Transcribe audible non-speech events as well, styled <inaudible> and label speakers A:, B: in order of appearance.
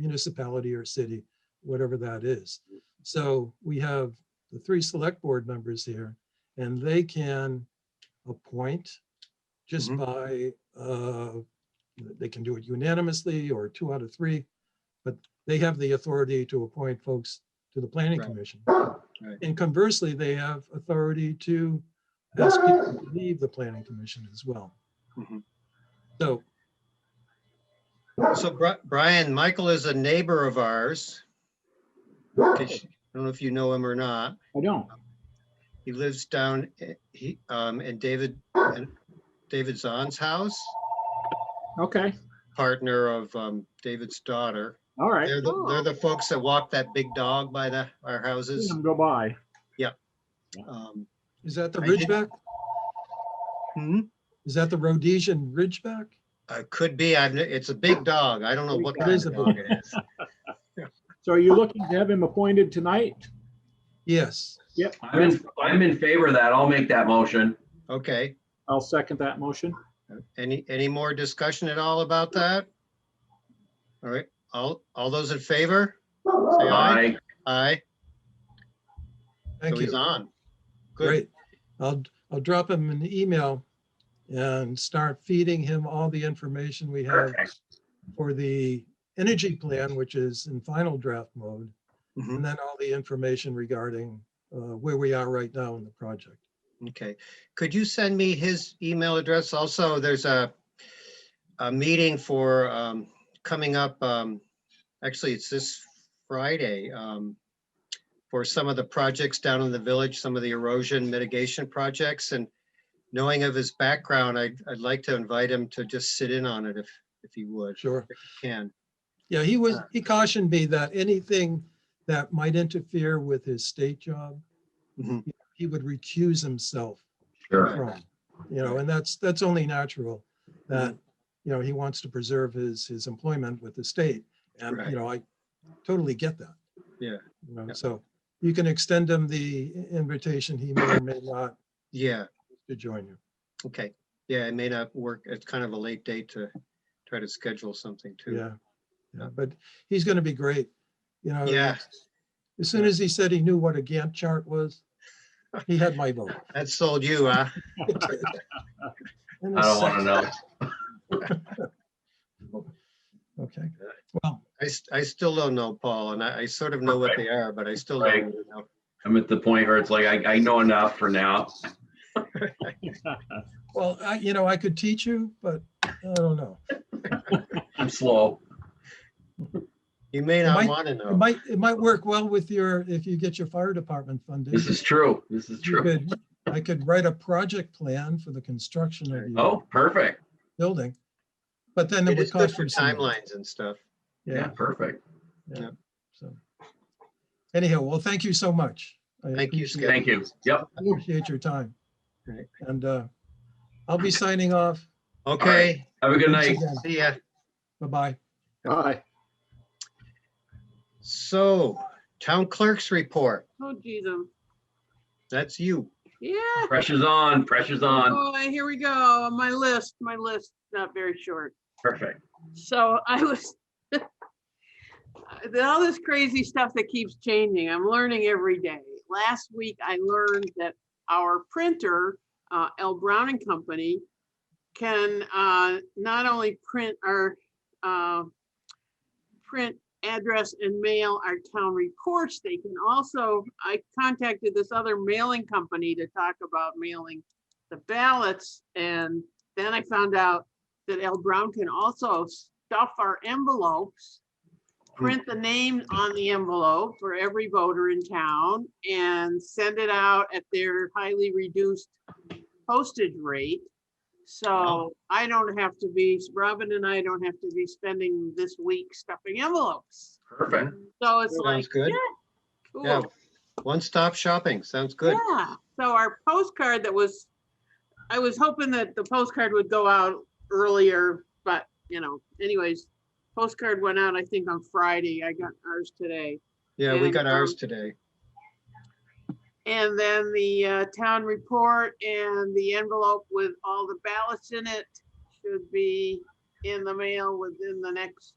A: municipality or city, whatever that is.
B: Mm.
A: So we have the three select board members here, and they can appoint just
B: Mhm.
A: by, uh, they can do it unanimously or two out of three, but they have the authority to appoint folks to the planning
B: Right.
A: commission. And conversely, they have authority to ask people to leave the planning commission as well.
B: Mhm.
A: So,
B: So Bri- Brian, Michael is a neighbor of ours. In case- I don't know if you know him or not.
C: I don't.
B: He lives down, eh, he, um, in David, in David Zahn's house,
C: Okay.
B: partner of, um, David's daughter.
C: All right.
B: They're the, they're the folks that walk that big dog by the, our
C: Seen
B: houses.
C: 'em Go by.
B: Um,
A: is that the
B: I did-
A: Ridgeback?
B: hmm,
A: Is that the Rhodesian Ridgeback?
B: uh, could be, I've, n- it's a big dog. I don't know what
C: Big
B: kind
A: dog.
B: of dog it is.
C: So are you looking to have him appointed tonight?
A: Yes.
C: Yep.
D: I'm in, I'm in favor of that. I'll make that motion.
B: Okay.
C: I'll second that motion.
B: Any, any more discussion at all about that? All right, all, all those in favor? Say aye.
D: Aye.
B: Aye. So
A: Thank
B: he's
A: you.
B: on. Good.
A: Great. I'll, I'll drop him an email and start feeding him all the information we have
D: Perfect.
A: for the energy plan, which is in final draft mode,
B: Mhm,
A: and then all the information regarding uh, where we are right now in the project.
B: Okay. Could you send me his email address? Also, there's a, a meeting for, um, coming up, um, actually, it's this Friday, um, for some of the projects down in the village, some of the erosion mitigation projects and knowing of his background, I'd, I'd like to invite him to just sit in on it if, if he would,
A: Sure.
B: can.
A: Yeah, he was,
B: Sure.
A: he cautioned me that anything that might interfere with his state job,
B: Mhm.
A: he would recuse himself
D: Sure.
A: from, you know, and that's, that's only natural that, you know, he wants to preserve his, his employment with the state. And,
B: Right.
A: you know, I totally get that.
B: Yeah.
A: You know,
B: Yeah.
A: so you can extend him the invitation. He may or may not
B: Yeah,
A: to join you.
B: okay. Yeah, it may not work. It's kind of a late date to try to schedule something too.
A: Yeah. Yeah, but he's going to be great, you know.
B: Yeah,
A: As soon as he said he knew what a Gantt chart was, he had my
B: <laughs>
A: vote.
B: that sold you, huh?
A: In a
D: I don't want to
A: sense.
D: know.
A: Okay, well,
B: I, s- I still don't know, Paul, and I, I sort of know what they are, but I still don't
D: Right.
B: really know.
D: I'm at the point where it's like, I, I know enough for now.
A: well, I, you know, I could teach you, but I don't know.
D: I'm slow.
B: You may
A: It
B: not
A: might-
B: want to
A: It
B: know.
A: might, it might work well with your, if you get your fire department funding.
D: This is true. This is
A: You
D: true.
A: could, I could write a project plan for the construction of your
D: Oh, perfect.
A: building, but then it
B: It
A: would
B: is good
A: cost
B: for
A: you some money.
B: timelines and stuff.
D: Yeah,
A: Yeah,
D: perfect.
A: yeah,
B: yeah.
A: so. Anyhow, well, thank you so much. I
B: Thank you,
A: appreciate-
B: Skip.
D: Thank you. Yep.
A: Appreciate your time.
B: Right.
A: And, uh, I'll be signing off.
B: Okay,
D: Have a good
A: Thanks
D: night.
A: again.
B: see ya.
A: Bye-bye.
C: Aye.
B: So, town clerk's report,
E: Oh, geez, um,
B: that's you.
E: yeah,
D: Pressure's on. Pressure's on.
E: boy, here we go. My list, my list, not very short.
D: Perfect.
E: So I was, <laughs> all this crazy stuff that keeps changing, I'm learning every day. Last week, I learned that our printer, uh, L Brown and Company, can uh, not only print our, uh, print address and mail our town reports, they can also, I contacted this other mailing company to talk about mailing the ballots, and then I found out that L Brown can also stuff our envelopes, print the name on the envelope for every voter in town and send it out at their highly reduced postage rate. So I don't have to be, Robin and I don't have to be spending this week stuffing envelopes.
D: Perfect.
E: So it's like,
B: Sounds good. Yeah.
E: cool.
B: One-stop shopping, sounds good.
E: Yeah, so our postcard that was, I was hoping that the postcard would go out earlier, but, you know, anyways, postcard went out, I think, on Friday. I got ours today.
B: Yeah, we
E: And,
B: got ours
E: um,
B: today.
E: And then the uh, town report and the envelope with all the ballots in it should be in the mail within the next